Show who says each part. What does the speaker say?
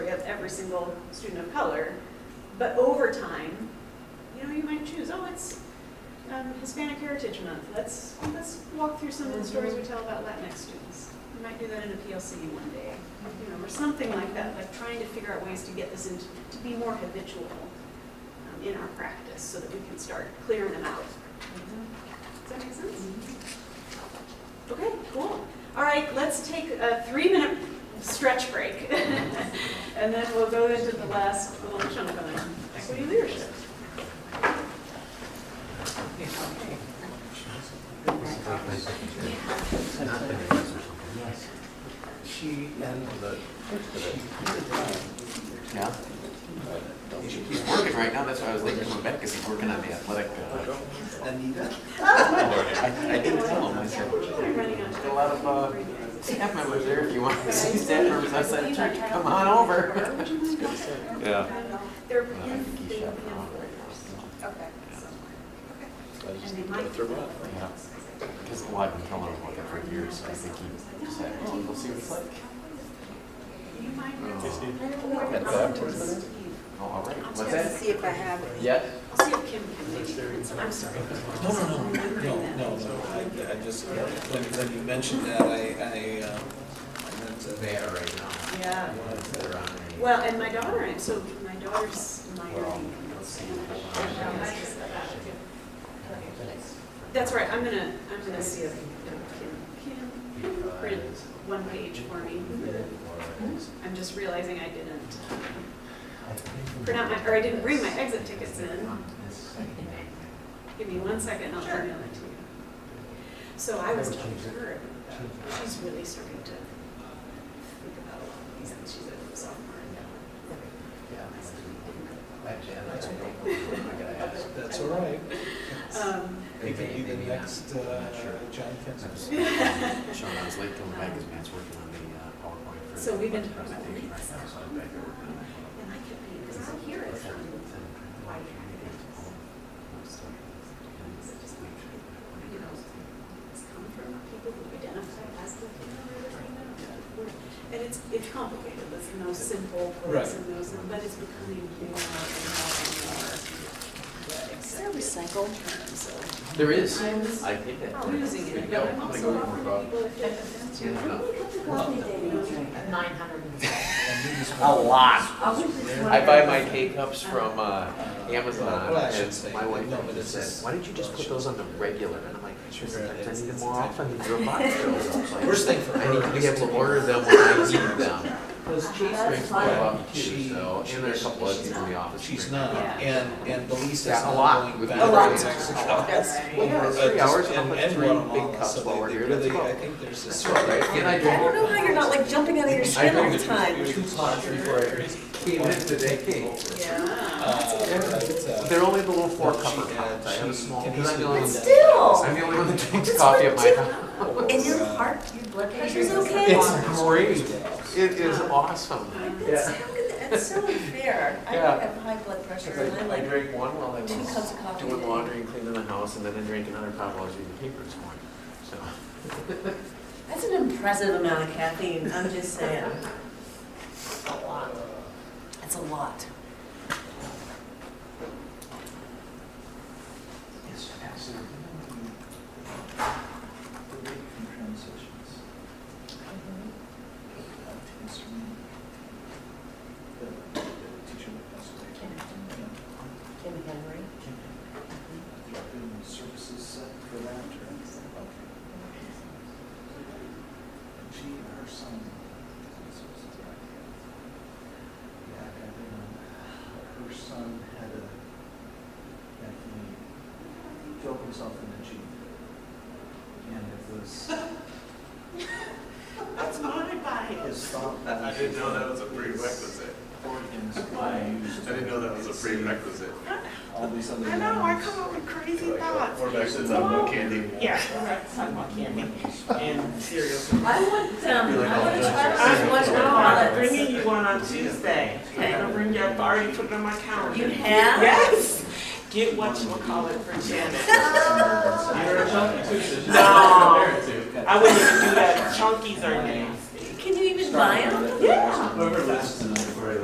Speaker 1: single student of color. But over time, you know, you might choose, oh, it's um, Hispanic Heritage Month, let's, let's walk through some of the stories we tell about Latinx students. We might do that in a PLC one day, you know, or something like that, like trying to figure out ways to get this into, to be more habitual um, in our practice, so that we can start clearing them out. Does that make sense? Okay, cool. All right, let's take a three-minute stretch break. And then we'll go into the last little chunk on equity leadership.
Speaker 2: She and the.
Speaker 3: Yeah. He's working right now, that's why I was late coming back, because he's working on the athletic. uh,
Speaker 2: Anita?
Speaker 3: I I did tell him, I said,
Speaker 1: We're running on
Speaker 3: "Got a
Speaker 1: time.
Speaker 3: lot of uh, staff members there, if you want to see staff members outside the church, come on over.
Speaker 1: Would you mind not-
Speaker 4: Yeah.
Speaker 1: They're,
Speaker 3: Uh, I think he's shopping around right now,
Speaker 1: okay. And they might.
Speaker 3: so, yeah. Because, well, I've been telling him about that for years, so I think he decided, oh, we'll see what it's like.
Speaker 1: You might.
Speaker 3: Oh, Oh, all right, what's
Speaker 1: Let's
Speaker 3: that?
Speaker 1: see if I have it.
Speaker 3: Yes?
Speaker 1: I'll see if Kim can make it. I'm sorry.
Speaker 2: No, no, no, no, no, no, I, I just, when, when you mentioned that, I, I, um, I meant to.
Speaker 3: They are right now.
Speaker 1: Yeah.
Speaker 3: They're on. a-
Speaker 1: Well, and my daughter, and so my daughter's
Speaker 3: We're all-
Speaker 1: minor.
Speaker 3: let's see if they're on.
Speaker 1: That's right, I'm gonna, I'm gonna see if Kim can print one page for me. I'm just realizing I didn't print out my, or I didn't bring my exit tickets in. Give me one second, I'll email it to you. So I was talking to her, about that. she's really starting to think about a lot of these, things. she's a sophomore in
Speaker 2: That's all right.
Speaker 1: Um,
Speaker 2: He could be the next, uh, John Kenseth.
Speaker 3: Sean, I was late coming back because Matt's working on the uh, PowerPoint. for
Speaker 1: So we've been
Speaker 3: the
Speaker 1: talking about
Speaker 3: presentation right
Speaker 1: links.
Speaker 3: now, so I'm back there working on it.
Speaker 1: and I could be, because I hear it from White you know, it's come from people who identify as Latino or Latino. And it's, it's complicated, there's no simple words
Speaker 2: Right.
Speaker 1: and those, but it's becoming more and more and more. There recycled terms, so
Speaker 3: There is. I think that.
Speaker 1: I'm losing
Speaker 3: There you
Speaker 1: it,
Speaker 3: go.
Speaker 1: but I'm
Speaker 3: I'm gonna
Speaker 1: also
Speaker 3: go over
Speaker 1: offering
Speaker 3: about-
Speaker 1: people if that offends you.
Speaker 3: Yeah, no.
Speaker 5: Nine hundred and
Speaker 3: A lot.
Speaker 5: I was just wondering-
Speaker 3: I buy my K cups from uh, Amazon
Speaker 2: Well, I should
Speaker 3: and
Speaker 2: say,
Speaker 3: my wife
Speaker 2: no, but
Speaker 3: just
Speaker 2: this
Speaker 3: said,
Speaker 2: is-
Speaker 3: why don't you just put those on the regular? And I'm like, sure, sometimes I need them more
Speaker 2: Yeah.
Speaker 3: often than your box fills." I was like,
Speaker 2: Worst thing for
Speaker 3: I need
Speaker 2: her
Speaker 3: to
Speaker 2: is
Speaker 3: be able
Speaker 2: to-
Speaker 3: to order them when I need them. Those cheese
Speaker 5: That's
Speaker 3: drinks go
Speaker 5: fine.
Speaker 3: up too,
Speaker 2: She-
Speaker 3: so, and there's a couple of people in the office.
Speaker 2: She's
Speaker 3: drink.
Speaker 2: not,
Speaker 1: Yeah.
Speaker 2: and, and the lease is
Speaker 3: Yeah, a lot
Speaker 2: not going
Speaker 3: with
Speaker 2: back.
Speaker 3: the- A lot.
Speaker 2: It's actually got-
Speaker 3: Well, yeah, it's three
Speaker 2: uh,
Speaker 3: hours,
Speaker 2: just-
Speaker 3: I'll
Speaker 2: and-
Speaker 3: put
Speaker 2: and
Speaker 3: three
Speaker 2: Guatemala,
Speaker 3: big cups
Speaker 2: so they-
Speaker 3: while we're
Speaker 2: they
Speaker 3: here, that's
Speaker 2: really-
Speaker 3: cool.
Speaker 2: I think there's this.
Speaker 3: That's all right. And I
Speaker 5: I don't know
Speaker 3: drink.
Speaker 5: how you're not like jumping out of your
Speaker 3: I
Speaker 5: skin all
Speaker 3: drank
Speaker 5: the
Speaker 3: it
Speaker 5: time.
Speaker 3: two pots before I came in today.
Speaker 1: Yeah.
Speaker 2: Uh, but, uh,
Speaker 3: They're only the little four
Speaker 2: But
Speaker 3: cupper
Speaker 2: she-
Speaker 3: pots. I have a
Speaker 2: she
Speaker 3: small.
Speaker 2: can
Speaker 3: 'cause I'm the only
Speaker 5: But
Speaker 3: one that-
Speaker 5: still,
Speaker 3: I'm the only one that drinks coffee at my house.
Speaker 5: in your heart, your blood pressure's okay.
Speaker 3: It's great. It is awesome.
Speaker 5: That's, how could that- that's so unfair. I
Speaker 3: Yeah.
Speaker 5: have high blood pressure and I
Speaker 3: I
Speaker 5: like,
Speaker 3: drank one while I
Speaker 5: Two cups of
Speaker 3: was
Speaker 5: coffee a
Speaker 3: doing
Speaker 5: day.
Speaker 3: laundry and cleaning the house, and then I drank another pot while I was reading the paper this morning. So,
Speaker 5: that's an impressive amount of caffeine, I'm just saying. A lot. That's a lot. Kim Henry.
Speaker 2: Services set for that, She, her son. Yeah, I think, um, her son had a, that he killed himself in the Jeep. And it was
Speaker 1: That's not advice.
Speaker 2: his thought.
Speaker 4: I didn't know that was a prerequisite.
Speaker 2: Organs
Speaker 4: I
Speaker 2: used.
Speaker 4: didn't know that was a prerequisite.
Speaker 2: All these other.
Speaker 1: I know, I
Speaker 2: ones.
Speaker 1: come up with crazy
Speaker 4: Like, uh,
Speaker 1: thoughts.
Speaker 4: Four backwards on one candy.
Speaker 1: Yeah.
Speaker 6: And cereal.
Speaker 5: I want, um, I want to try
Speaker 6: I'm
Speaker 5: those
Speaker 6: like, "Oh,
Speaker 5: lunch
Speaker 6: no, I'm
Speaker 5: chocolates.
Speaker 6: bringing you one on Tuesday. I'm gonna bring you, I've already put it on my calendar.
Speaker 5: You have?
Speaker 6: Yes. Get what you call it for Janet. No. I wouldn't even do that. Chunkies are nasty.
Speaker 5: Can you even buy them?
Speaker 2: Yeah. Whoever lives tonight.